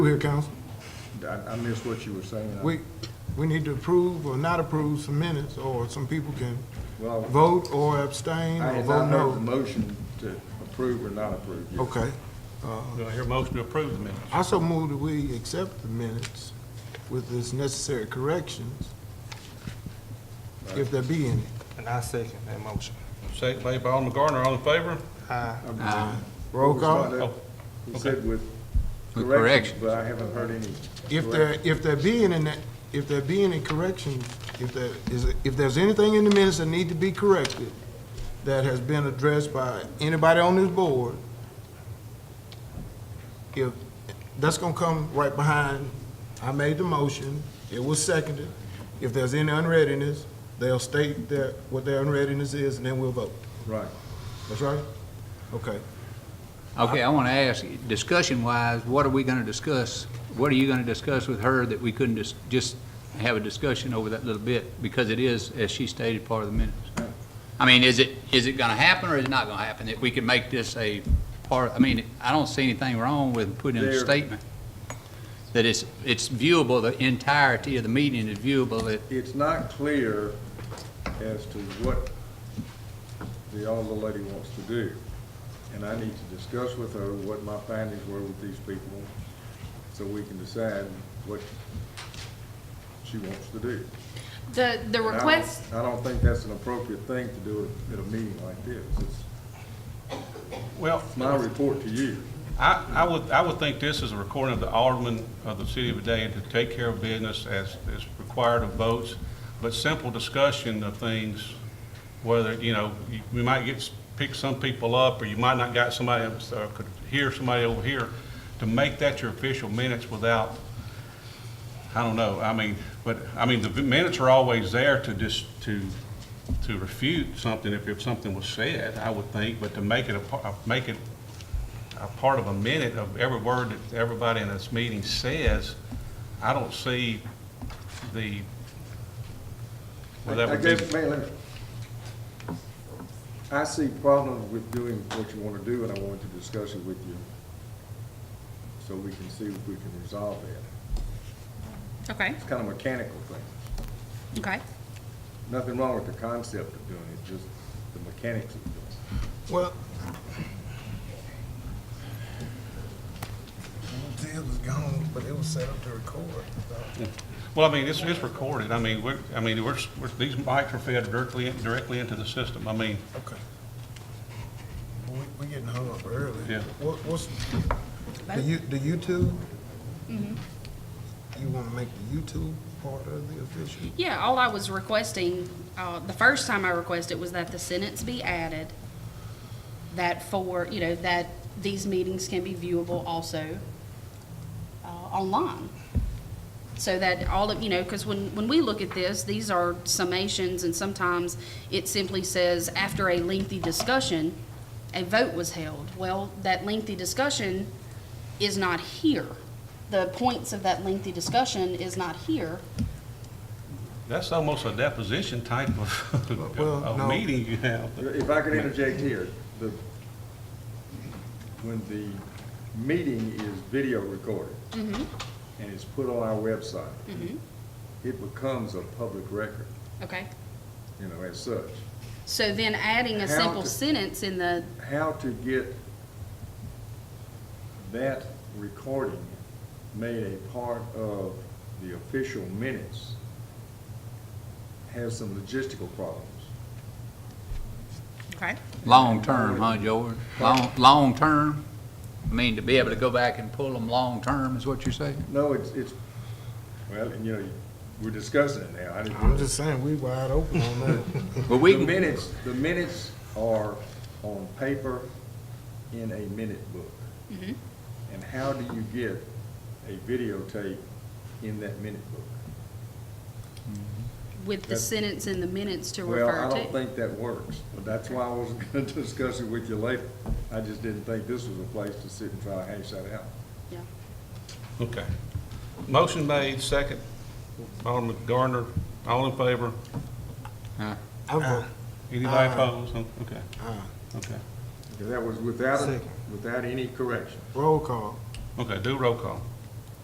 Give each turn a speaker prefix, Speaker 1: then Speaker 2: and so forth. Speaker 1: Here, council,
Speaker 2: I, I missed what you were saying.
Speaker 1: we, we need to approve or not approve some minutes, or some people can
Speaker 2: Well,
Speaker 1: vote or abstain
Speaker 2: I
Speaker 1: or
Speaker 2: had
Speaker 1: vote
Speaker 2: not heard the
Speaker 1: no.
Speaker 2: motion to approve or not approve.
Speaker 1: Okay,
Speaker 3: Do I hear a motion to approve the minutes?
Speaker 1: I so move that we accept the minutes with this necessary corrections, if there be any.
Speaker 4: And I second that motion.
Speaker 3: Second made by Alderman Gardner, all in favor?
Speaker 4: Aye.
Speaker 1: Roll call,
Speaker 2: He said with
Speaker 5: With
Speaker 2: corrections,
Speaker 5: corrections.
Speaker 2: but I haven't heard any.
Speaker 1: if there, if there be any, ne- if there be any correction, if there is, if there's anything in the minutes that need to be corrected, that has been addressed by anybody on this board, if, that's gonna come right behind, I made the motion, it was seconded. If there's any unreadiness, they'll state their, what their unreadiness is, and then we'll vote.
Speaker 2: Right.
Speaker 1: That's right? Okay.
Speaker 5: Okay, I want to ask, discussion-wise, what are we going to discuss? What are you going to discuss with her that we couldn't just, just have a discussion over that little bit? Because it is, as she stated, part of the minutes. I mean, is it, is it going to happen or is it not going to happen? That we could make this a part, I mean, I don't see anything wrong with putting in a
Speaker 2: There-
Speaker 5: statement. That it's, it's viewable, the entirety of the meeting is viewable, that,
Speaker 2: It's not clear as to what the elder lady wants to do. And I need to discuss with her what my findings were with these people, so we can decide what she wants to do.
Speaker 6: The, the
Speaker 2: And I don't-
Speaker 6: request,
Speaker 2: I don't think that's an appropriate thing to do at a meeting like this. It's
Speaker 3: Well,
Speaker 2: my report to you.
Speaker 3: I, I would, I would think this is a recording of the alderman of the city of Vidalia to take care of business as is required of votes, but simple discussion of things, whether, you know, you- we might get, s- pick some people up, or you might not got somebody, else, uh, could hear somebody over here, to make that your official minutes without, I don't know, I mean, but, I mean, the minutes are always there to just, to, to refute something if, if something was said, I would think, but to make it a, par- make it a part of a minute of every word that everybody in this meeting says, I don't see the, well, that
Speaker 2: I
Speaker 3: would be,
Speaker 2: guess, man, let me- I see problems with doing what you want to do, and I wanted to discuss it with you, so we can see if we can resolve that.
Speaker 6: okay,
Speaker 2: It's kind of mechanical thing.
Speaker 6: okay.
Speaker 2: Nothing wrong with the concept of doing it, just the mechanics of doing it.
Speaker 1: Well,
Speaker 4: It was gone, but it was set up to record.
Speaker 3: well, I mean, it's, it's recorded, I mean, we're, I mean, we're, we're- these mics are fed directly, in- directly into the system, I mean,
Speaker 1: okay. We, we getting hung up early.
Speaker 3: Yeah.
Speaker 1: What, what's, do you, do you two? You wanna make the YouTube part of the official?
Speaker 6: Yeah, all I was requesting, uh, the first time I requested was that the sentence be added, that for, you know, that these meetings can be viewable also, uh, online. So that all of, you know, because when, when we look at this, these are summations and sometimes it simply says, after a lengthy discussion, a vote was held. Well, that lengthy discussion is not here. The points of that lengthy discussion is not here.
Speaker 3: that's almost a deposition type of,
Speaker 1: Well, no.
Speaker 3: of meeting you have.
Speaker 2: If I could interject here, the, when the meeting is video recorded and it's put on our website, it becomes a public record,
Speaker 6: Okay.
Speaker 2: you know, as such.
Speaker 6: So then adding
Speaker 2: How
Speaker 6: a simple
Speaker 2: to-
Speaker 6: sentence in the,
Speaker 2: How to get that recording made a part of the official minutes has some logistical problems.
Speaker 6: okay,
Speaker 5: long-term, huh, George? Long, long-term? I mean, to be able to go back and pull them long-term is what you're saying?
Speaker 2: No, it's, it's, well, and you know, we're discussing it now. I didn't-
Speaker 1: I'm just saying, we wide open on that.
Speaker 5: But we
Speaker 2: The
Speaker 5: can,
Speaker 2: minutes, the minutes are on paper in a minute book.
Speaker 6: Mm-hmm.
Speaker 2: And how do you get a videotape in that minute book?
Speaker 6: with the
Speaker 2: That's-
Speaker 6: sentence in the minutes to
Speaker 2: Well,
Speaker 6: refer
Speaker 2: I don't
Speaker 6: to.
Speaker 2: think that works, but that's why I wasn't gonna discuss it with you later. I just didn't think this was a place to sit and try to hash that out.
Speaker 6: Yeah.
Speaker 3: Okay. Motion made, second, Alderman Gardner, all in favor?
Speaker 1: I vote,
Speaker 3: Anybody
Speaker 1: Aye.
Speaker 3: opposed? Okay,
Speaker 1: aye.
Speaker 3: okay.
Speaker 2: That was without, a-
Speaker 1: Second.
Speaker 2: without any correction.
Speaker 1: Roll call.
Speaker 3: Okay, do roll call.